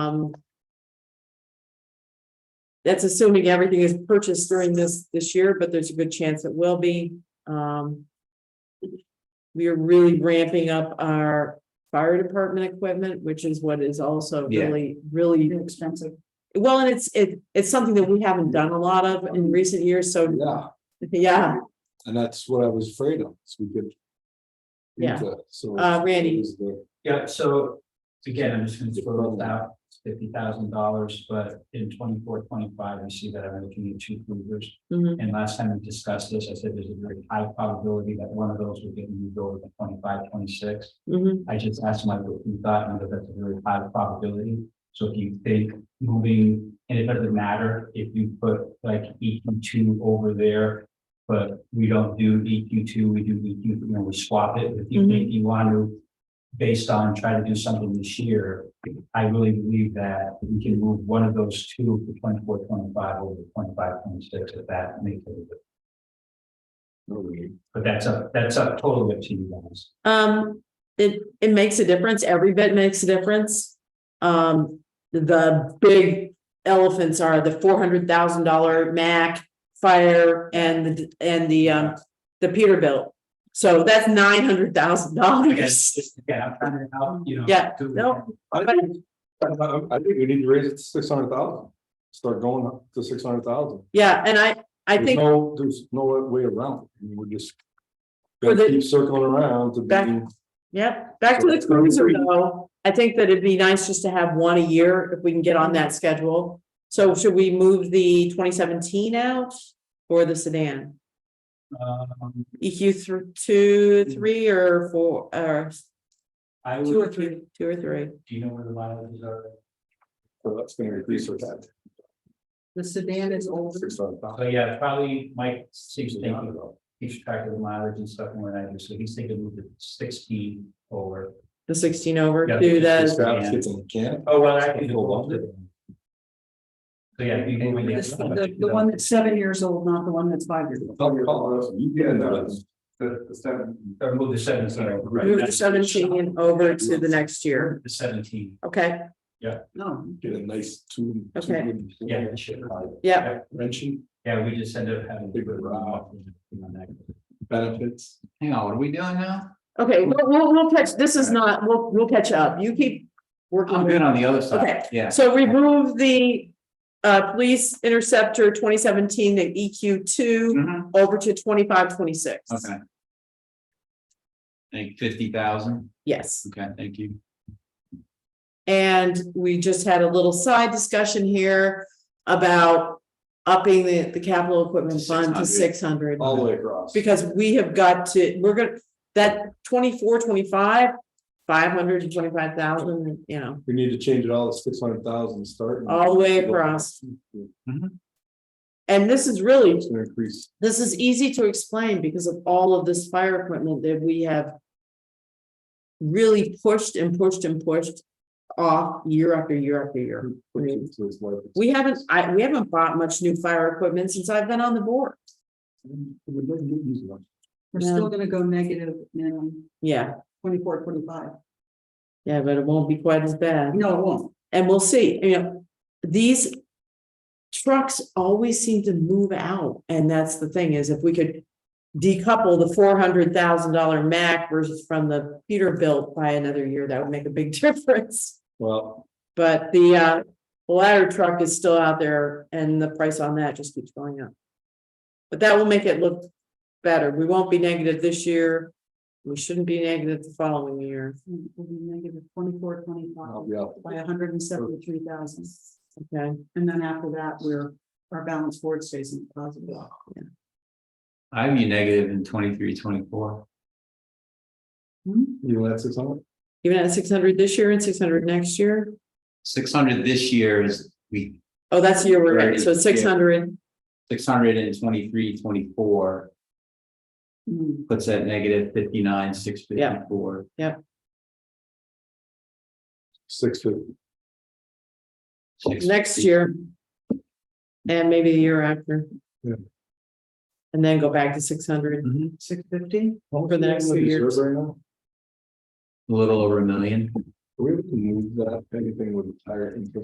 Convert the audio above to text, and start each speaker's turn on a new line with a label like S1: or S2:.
S1: Um. That's assuming everything is purchased during this, this year, but there's a good chance it will be, um. We are really ramping up our fire department equipment, which is what is also
S2: Yeah.
S1: really, really expensive. Well, and it's, it, it's something that we haven't done a lot of in recent years, so,
S3: Yeah,
S1: yeah,
S3: and that's what I was afraid of, so we could.
S1: Yeah.
S3: So.
S1: Uh, Randy.
S3: Is the-
S4: Yeah, so again, I'm just gonna throw this out, fifty thousand dollars, but in 24, 25, we see that I'm looking at two cruisers.
S1: mhm,
S4: And last time we discussed this, I said there's a very high probability that one of those would get moved over to 25, 26.
S1: mhm,
S4: I just asked Mike what he thought, and that that's a very high probability. So if you think moving, and it doesn't matter if you put like EQ two over there. But we don't do EQ two, we do EQ, you know, we swap it. If you think you want to, based on trying to do something this year. I really believe that we can move one of those two for 24, 25 over to 25, 26. if that makes it. But that's up, that's up totally up to you guys.
S1: um, it, it makes a difference, every bit makes a difference. Um, the big elephants are the four hundred thousand dollar Mac fire and, the and the, um, the Peterbilt. So that's nine hundred thousand
S4: I
S1: dollars.
S4: guess, yeah, I'm trying to help, you know.
S1: Yeah,
S4: do-
S1: no.
S3: I think, I- I think we need to raise it to six hundred thousand, start going up to six hundred thousand.
S1: Yeah, and I, I
S3: There's
S1: think,
S3: no, there's no way around, it. I mean, we're just.
S1: For
S3: Gotta
S1: the-
S3: keep circling around to
S1: Back-
S3: being,
S1: yeah, back to the
S3: So-
S1: cruiser though. I think that it'd be nice just to have one a year if we can get on that schedule. So should we move the twenty seventeen out or the sedan?
S4: Um,
S1: EQ E through two, three or four, or
S4: Mm. I
S1: two or
S4: would,
S1: three,
S4: do
S1: two or three.
S4: you know where the mileages are?
S3: so that's gonna increase our tax.
S5: The sedan is older.
S3: Six hundred thousand.
S4: So yeah, probably Mike seems thinking, keeps track of the mileage and stuff more than I do, so he's thinking move the sixteen over.
S1: The sixteen over
S4: Yeah,
S1: to
S4: it's-
S1: the,
S3: It's in the can.
S4: Oh, well,
S3: I can go along with it.
S4: So yeah, if you move it.
S5: This- The, the one that's seven years old, not the one that's five years old.
S3: Tell me about it. You get it.
S4: The, the seven. Or move the seventeen over. right,
S1: move the
S4: that's-
S1: seventeen over to the next year.
S4: The seventeen,
S1: Okay,
S5: No,
S3: Get a nice two. two
S1: Okay.
S3: wooden-
S4: yeah, it should,
S1: yeah,
S3: Wrenching
S4: yeah, we just end up having.
S3: Big row. benefits.
S2: Hang on, what are we doing now?
S1: okay, we'll, we'll, we'll catch, this is not, we'll, we'll catch up. You keep
S2: I'm
S1: working.
S2: good on the other
S1: Okay.
S2: side, yeah.
S1: So remove the uh, police interceptor twenty seventeen, the EQ two
S4: Mm-hmm.
S2: Mhm.
S1: over to twenty-five, twenty-six.
S2: Okay. Think fifty thousand,
S1: Yes.
S2: okay, thank you.
S1: And we just had a little side discussion here about upping the, the capital equipment fund
S2: 600.
S1: to six hundred.
S3: All the way across.
S1: Because we have got to, we're gonna, that 24, 25, five hundred and twenty-five thousand, you know,
S3: We need to change it all to six hundred thousand starting.
S1: all the way across.
S2: Mhm.
S1: And this is really,
S3: It's gonna increase.
S1: this is easy to explain because of all of this fire equipment that we have really pushed and pushed and pushed off year after year after year.
S3: increase to its life.
S1: We haven't, I, we haven't bought much new fire equipment since I've been on the board.
S3: We don't get used to it.
S5: we're
S1: No.
S5: still gonna go negative in
S1: Yeah,
S5: twenty-four, twenty-five.
S1: yeah, but it won't be quite as bad.
S5: No, it won't.
S1: And we'll see, you know, these trucks always seem to move out. And that's the thing is if we could decouple the four hundred thousand dollar Mac versus from the Peterbilt by another year, that would make a big difference.
S3: Well,
S1: But the, uh, ladder truck is still out there and the price on that just keeps going up. But that will make it look better. We won't be negative this year. We shouldn't be negative the following year.
S5: We'll be negative twenty-four,
S3: I'll
S5: twenty-five
S3: be out.
S5: by hundred and seventy-three thousand.
S1: Okay,
S5: And then after that, we're, our balance board stays in positive.
S2: I'd be negative in twenty-three, twenty-four.
S3: You want six hundred?
S1: even at six hundred this year and six hundred next year.
S2: Six hundred this year is, we,
S1: Oh, that's the year we're in. So
S2: Right, yeah.
S1: six hundred,
S2: six hundred and twenty-three, twenty-four
S5: Hmm,
S2: puts that negative fifty-nine, six fifty-four.
S3: Six fifty.
S1: next year. And maybe the year after.
S3: Yeah.
S1: And then go back to six hundred.
S2: Mm-hmm.
S5: Six fifty?
S1: For the next few years.
S3: Right now?
S2: A little over a million.
S3: we able to move that, anything with higher interest